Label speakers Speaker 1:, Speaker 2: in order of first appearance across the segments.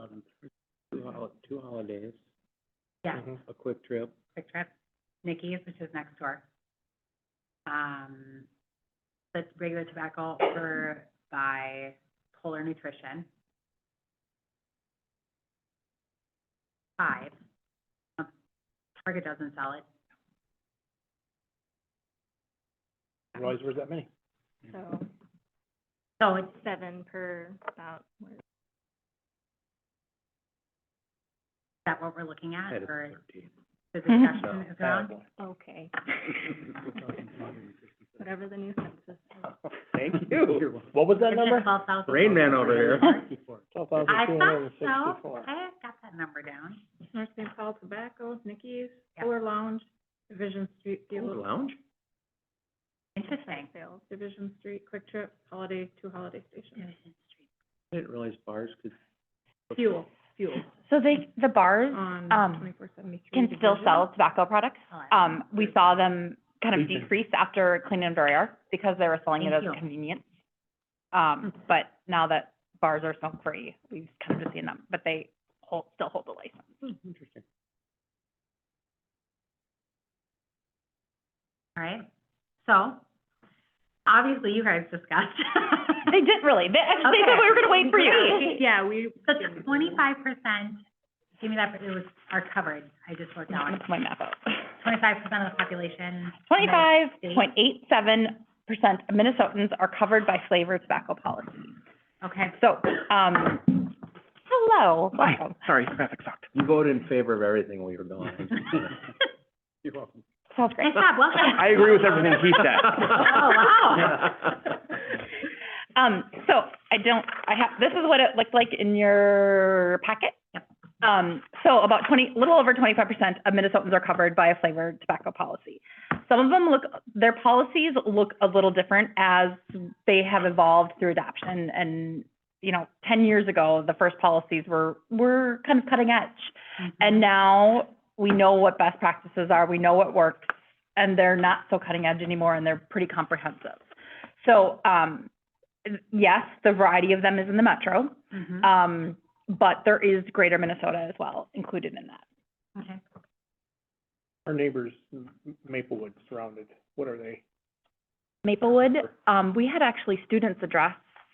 Speaker 1: um, two hol- two holidays.
Speaker 2: Yeah,
Speaker 3: Mm-hmm.
Speaker 1: A quick trip.
Speaker 2: Quick Trip, Nikki's, which is next door. Um, the regular tobacco over by Polar Nutrition. Five. Um, Target doesn't sell it.
Speaker 1: Always was that many.
Speaker 4: So
Speaker 2: So it's,
Speaker 4: seven per about, what-
Speaker 2: is that what we're looking at, or
Speaker 1: thirteen.
Speaker 2: the discussion is around?
Speaker 4: okay, whatever the new census is.
Speaker 1: Thank you. What was that number?
Speaker 2: Twelve thousand.
Speaker 3: Rain Man over here.
Speaker 1: Twelve thousand
Speaker 2: I
Speaker 1: two hundred and
Speaker 2: thought so,
Speaker 1: sixty-four.
Speaker 2: I got that number down.
Speaker 5: North St. Paul Tobacco, Nikki's,
Speaker 2: Yeah.
Speaker 5: Fuller Lounge, Division Street,
Speaker 3: Old
Speaker 5: Delo-
Speaker 3: Lounge?
Speaker 2: Interesting.
Speaker 4: Sales.
Speaker 5: Division Street, Quick Trip, Holiday, two Holiday Stations.
Speaker 1: I didn't realize bars could.
Speaker 5: Fuel, fuel,
Speaker 6: So they, the bars
Speaker 5: on
Speaker 6: Um,
Speaker 5: twenty-four seventy-three.
Speaker 6: can
Speaker 2: Mm-hmm.
Speaker 6: still sell tobacco products.
Speaker 2: Oh, I-
Speaker 6: Um, we saw them kind of
Speaker 1: Mhm.
Speaker 6: decrease after Clean and Dry Art because they were selling it
Speaker 2: Thank
Speaker 6: as
Speaker 2: you. Mm-hmm.
Speaker 6: a convenience. Um, but now that bars are smoke-free, we've kind of just seen them, but they hold, still hold the license.
Speaker 1: Hmm, Interesting.
Speaker 2: All right, so, obviously you guys discussed.
Speaker 6: They didn't really, they, actually, they said
Speaker 2: Okay.
Speaker 6: we were gonna wait for you.
Speaker 5: Yeah, we.
Speaker 2: So twenty-five percent, give me that, it was, are covered, I just worked
Speaker 6: Now I
Speaker 2: out,
Speaker 6: took my map out.
Speaker 2: twenty-five percent of the population.
Speaker 6: Twenty-five point eight seven percent of Minnesotans are covered by flavored tobacco policy.
Speaker 2: Okay,
Speaker 6: So, um, hello, welcome.
Speaker 3: Sorry, traffic sucked. You voted in favor of everything we were going.
Speaker 1: You're welcome.
Speaker 6: Sounds
Speaker 2: nice
Speaker 6: great.
Speaker 2: job, well done.
Speaker 3: I agree with everything he said.
Speaker 2: Oh, wow.
Speaker 6: Um, so I don't, I have, this is what it looked like in your packet.
Speaker 2: Yep.
Speaker 6: Um, so about twenty, little over twenty-five percent of Minnesotans are covered by a flavored tobacco policy. Some of them look, their policies look a little different as they have evolved through adoption and, you know, ten years ago, the first policies were, were kind of cutting edge.
Speaker 2: Mm-hmm.
Speaker 6: And now we know what best practices are, we know what works, and they're not so cutting edge anymore, and they're pretty comprehensive. So, um, yes, the variety of them is in the metro,
Speaker 2: Mhm.
Speaker 6: um, but there is greater Minnesota as well included in that.
Speaker 2: Okay.
Speaker 1: Our neighbors, M- Maplewood surrounded, what are they?
Speaker 6: Maplewood, um, we had actually students address,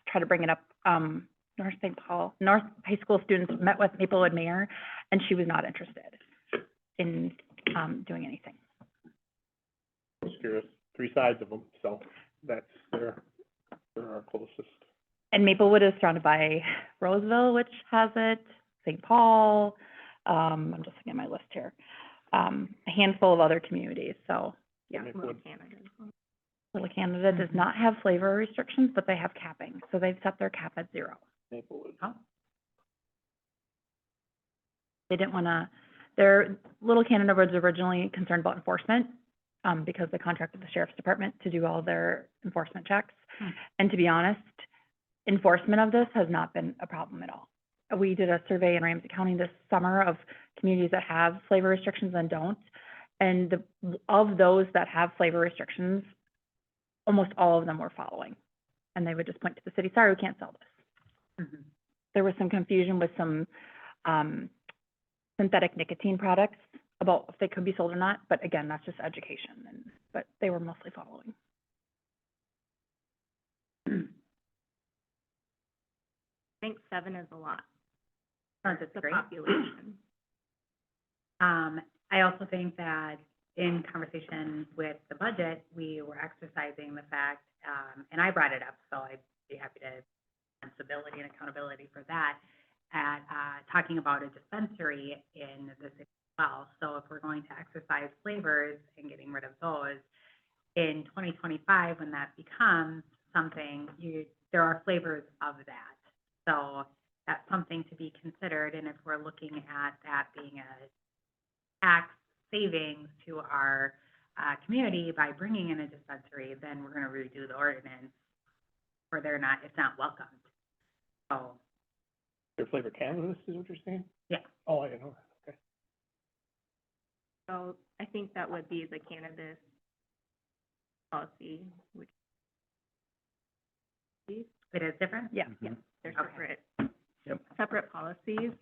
Speaker 6: try to bring it up, um, North St. Paul, North High School students met with Maplewood mayor, and she was not interested in, um, doing anything.
Speaker 1: Just curious, three sides of them, so that's, they're, they're our closest.
Speaker 6: And Maplewood is surrounded by Roseville, which has it, St. Paul, um, I'm just looking at my list here. Um, a handful of other communities, so
Speaker 4: Yeah,
Speaker 1: Make
Speaker 4: Little
Speaker 1: wood.
Speaker 4: Canada.
Speaker 6: Little Canada does
Speaker 2: Mhm.
Speaker 6: not have flavor restrictions, but they have capping, so they've set their cap at zero.
Speaker 1: Maplewood.
Speaker 2: Oh,
Speaker 6: They didn't wanna, their, Little Canada was originally concerned about enforcement, um, because they contracted the sheriff's department to do all their enforcement checks.
Speaker 2: Hmm.
Speaker 6: And to be honest, enforcement of this has not been a problem at all. We did a survey in Ramsey County this summer of communities that have flavor restrictions and don't. And the, of those that have flavor restrictions, almost all of them were following. And they would just point to the city, sorry, we can't sell this
Speaker 2: mhm.
Speaker 6: there was some confusion with some um, synthetic nicotine products about if they could be sold or not. But again, that's just education. And, but they were mostly following.
Speaker 4: I think seven is a lot,
Speaker 2: Sounds it's
Speaker 4: the
Speaker 2: great.
Speaker 4: population.
Speaker 2: Um, I also think that in conversation with the budget, we were exercising the fact, um, and I brought it up, so I'd be happy to responsibility and accountability for that, at, uh, talking about a dispensary in the city as well. So if we're going to exercise flavors and getting rid of those, in twenty twenty-five, when that becomes something, you, there are flavors of that. So that's something to be considered, and if we're looking at that being a tax savings to our, uh, community by bringing in a dispensary, then we're gonna redo the ordinance where they're not, it's not welcomed. So,
Speaker 1: Their flavored cannabis is what you're saying?
Speaker 2: Yeah.
Speaker 1: Oh, I know.
Speaker 4: So I think that would be the cannabis policy, which
Speaker 2: it is different?
Speaker 6: Yeah.
Speaker 2: Okay.
Speaker 4: they're
Speaker 3: Mm-hmm.
Speaker 4: separate.
Speaker 1: Yep.
Speaker 4: Separate policies,